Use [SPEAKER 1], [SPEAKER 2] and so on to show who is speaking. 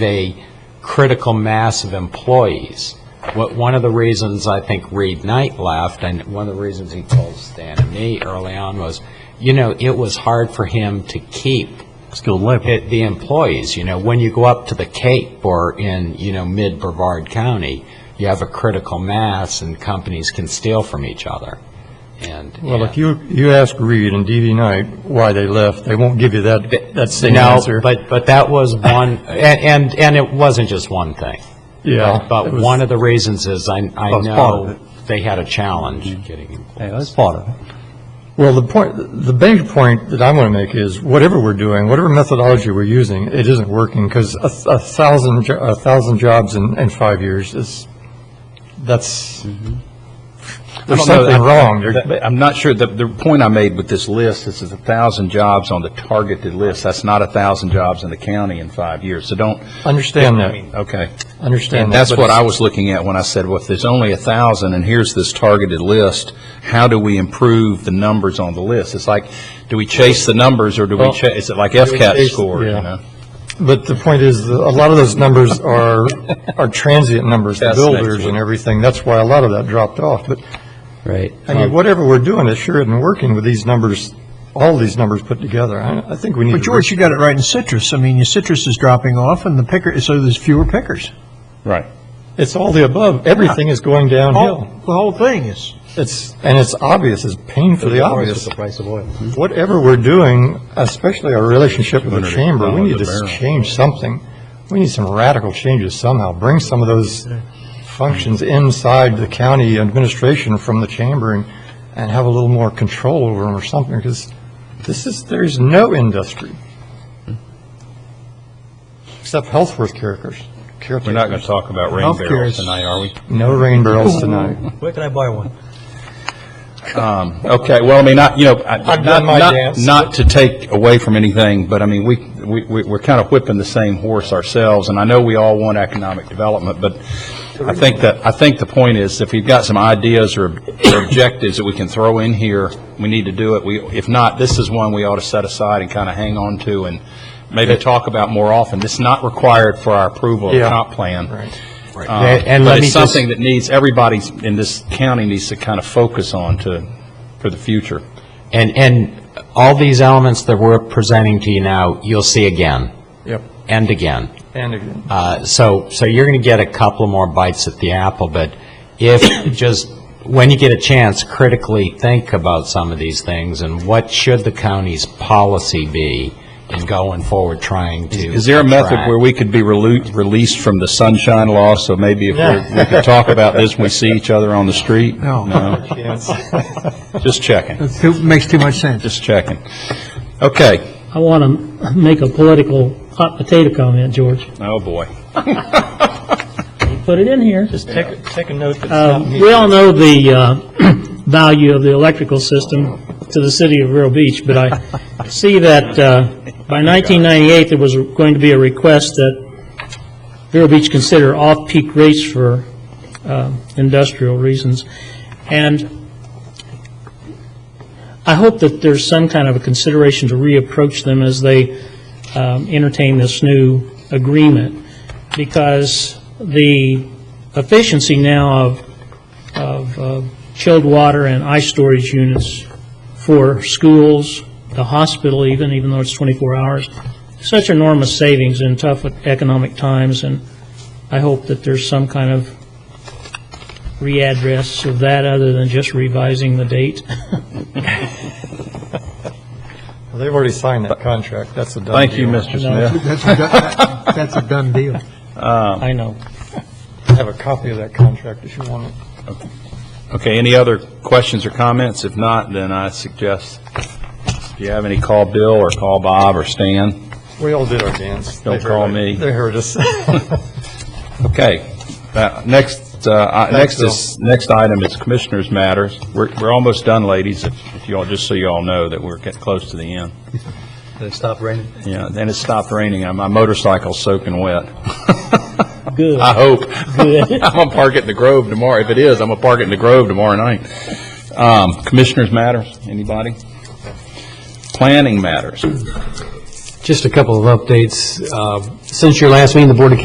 [SPEAKER 1] a critical mass of employees. What, one of the reasons I think Reed Knight left, and one of the reasons he told Stan and me early on was, you know, it was hard for him to keep
[SPEAKER 2] skilled labor.
[SPEAKER 1] it- the employees, you know, when you go up to the Cape or in, you know, mid-Brevard County, you have a critical mass and companies can steal from each other. And,
[SPEAKER 3] Well,
[SPEAKER 1] and-
[SPEAKER 3] if you, you ask Reed and DV Knight why they left, they won't give you that, that same
[SPEAKER 1] no,
[SPEAKER 3] answer.
[SPEAKER 1] but, but that was one, and, and, and it wasn't just one thing.
[SPEAKER 3] Yeah.
[SPEAKER 1] But
[SPEAKER 3] it was-
[SPEAKER 1] one of the reasons is I, I
[SPEAKER 3] was part of
[SPEAKER 1] know
[SPEAKER 3] it. Mm-hmm.
[SPEAKER 1] they had a challenge getting employees.
[SPEAKER 2] Yeah, that's part of it.
[SPEAKER 3] Well, the point, the big point that I want to make is whatever we're doing, whatever methodology we're using, it isn't working because a, a thousand, jo- a thousand jobs in, in five years is, that's, there's
[SPEAKER 4] Mm-hmm. I don't know,
[SPEAKER 3] something
[SPEAKER 4] I-
[SPEAKER 3] wrong. There-
[SPEAKER 4] That- but I'm not sure, the, the point I made with this list, this is a thousand jobs on the targeted list, that's not a thousand jobs in the county in five years, so don't,
[SPEAKER 3] Understand that,
[SPEAKER 4] okay.
[SPEAKER 3] understand
[SPEAKER 4] And
[SPEAKER 3] that.
[SPEAKER 4] that's
[SPEAKER 3] but
[SPEAKER 4] what I was looking at when I said, well, if there's only a thousand, and here's this targeted list, how do we improve the numbers on the list? It's like, do we chase the numbers, or do we,
[SPEAKER 3] Well,
[SPEAKER 4] cha- is it like
[SPEAKER 3] we
[SPEAKER 4] FCAT
[SPEAKER 3] chase-
[SPEAKER 4] score, you
[SPEAKER 3] yeah.
[SPEAKER 4] know?
[SPEAKER 3] But the point is, that a lot of those numbers are, are transient numbers, the
[SPEAKER 4] That's next
[SPEAKER 3] builders
[SPEAKER 4] week.
[SPEAKER 3] and everything. That's why a lot of that dropped off. But,
[SPEAKER 2] Right.
[SPEAKER 3] I mean, whatever we're doing, it sure isn't working with these numbers, all these numbers put together. I, I think we need to.
[SPEAKER 5] But George, you got it right in citrus. I mean, your citrus is dropping off, and the picker, so there's fewer pickers.
[SPEAKER 4] Right.
[SPEAKER 3] It's all the above. Everything is going
[SPEAKER 5] All-
[SPEAKER 3] downhill.
[SPEAKER 5] Oh, The whole thing is.
[SPEAKER 3] It's, and it's obvious, it's painfully obvious.
[SPEAKER 2] price of oil. Hmm?
[SPEAKER 3] Whatever we're doing, especially our relationship with the
[SPEAKER 4] $200
[SPEAKER 3] chamber, we need
[SPEAKER 4] a
[SPEAKER 3] to
[SPEAKER 4] barrel.
[SPEAKER 3] change something. We need some radical changes somehow. Bring some of those functions inside the county administration from the chamber and, and have a little more control over them or something, because this is, there's no industry. Except health worth caretakers.
[SPEAKER 4] We're not going to talk about rain
[SPEAKER 5] Healthcare
[SPEAKER 4] barrels
[SPEAKER 5] is-
[SPEAKER 4] tonight, are we?
[SPEAKER 3] No rain barrels tonight.
[SPEAKER 5] Where can I buy one?
[SPEAKER 4] Um, Okay, well, I mean, not, you know, I-
[SPEAKER 3] I've
[SPEAKER 4] not,
[SPEAKER 3] done my
[SPEAKER 4] not,
[SPEAKER 3] dance.
[SPEAKER 4] not to take away from anything, but I mean, we, we, we- we're kind of whipping the same horse ourselves, and I know we all want economic development, but I think that, I think the point is, if you've got some ideas or or objectives that we can throw in here, we need to do it. We, if not, this is one we ought to set aside and kind of hang on to and maybe talk about more often. It's not required for our approval of
[SPEAKER 3] Yeah.
[SPEAKER 4] comp plan.
[SPEAKER 3] Right.
[SPEAKER 1] Right.
[SPEAKER 4] Uh,
[SPEAKER 1] And let
[SPEAKER 4] But
[SPEAKER 1] me
[SPEAKER 4] it's
[SPEAKER 1] just,
[SPEAKER 4] something that needs, everybody in this county needs to kind of focus on to, for the future.
[SPEAKER 1] and, and all these elements that we're presenting to you now, you'll see again
[SPEAKER 3] Yep.
[SPEAKER 1] and again.
[SPEAKER 3] And again.
[SPEAKER 1] Uh, So, so you're going to get a couple more bites at the apple, but if, just, when you get a chance, critically think about some of these things, and what should the county's policy be in going forward, trying to...
[SPEAKER 4] Is there a method
[SPEAKER 1] attract-
[SPEAKER 4] where we could be relu- released from the sunshine law, so maybe if we're- we could talk about this when we see each other on the street?
[SPEAKER 5] No.
[SPEAKER 4] Just checking,
[SPEAKER 5] It makes too much sense.
[SPEAKER 4] just checking. Okay,
[SPEAKER 6] I want to make a political hot potato comment, George.
[SPEAKER 4] oh, boy.
[SPEAKER 6] Put it in here.
[SPEAKER 3] Take, take a note that's
[SPEAKER 6] Um, We all know the uh, value of the electrical system to the city of Vero Beach, but I see that uh, by 1998, there was going to be a request that Vero Beach consider off-peak rates for uh, industrial reasons. And I hope that there's some kind of a consideration to reapproach them as they um, entertain this new agreement, because the efficiency now of of uh, chilled water and ice storage units for schools, the hospital even, even though it's 24 hours. Such enormous savings in tough economic times, and I hope that there's some kind of readdress of that other than just revising the date.
[SPEAKER 3] Well, They've already signed that contract, that's a done
[SPEAKER 4] Thank you,
[SPEAKER 3] deal.
[SPEAKER 4] Mr.
[SPEAKER 6] No.
[SPEAKER 4] Smith.
[SPEAKER 5] That's a done- that's a done deal.
[SPEAKER 6] I know.
[SPEAKER 3] I have a copy of that contract if you want it.
[SPEAKER 4] Okay, any other questions or comments? If not, then I suggest, if you have any, call Bill or call Bob or Stan.
[SPEAKER 3] We all did our dance.
[SPEAKER 4] Don't
[SPEAKER 3] They
[SPEAKER 4] call
[SPEAKER 3] heard-
[SPEAKER 4] me.
[SPEAKER 3] They heard us.
[SPEAKER 4] Okay, Uh, next, uh, I-
[SPEAKER 3] Thanks,
[SPEAKER 4] next is, next item is Commissioners' Matters. We're, we're almost done, ladies, if if you all, just so you all know that we're getting close to the end.
[SPEAKER 2] It stopped raining.
[SPEAKER 4] Yeah, then it stopped raining. Uh, My motorcycle's soaking wet.
[SPEAKER 6] Good.
[SPEAKER 4] I hope. I'm gonna park it in the Grove tomorrow. If it is, I'm gonna park it in the Grove tomorrow night. Um, Commissioners matters, anybody? Planning matters.
[SPEAKER 7] Just a couple of updates. Uh, Since your last meeting, the Board of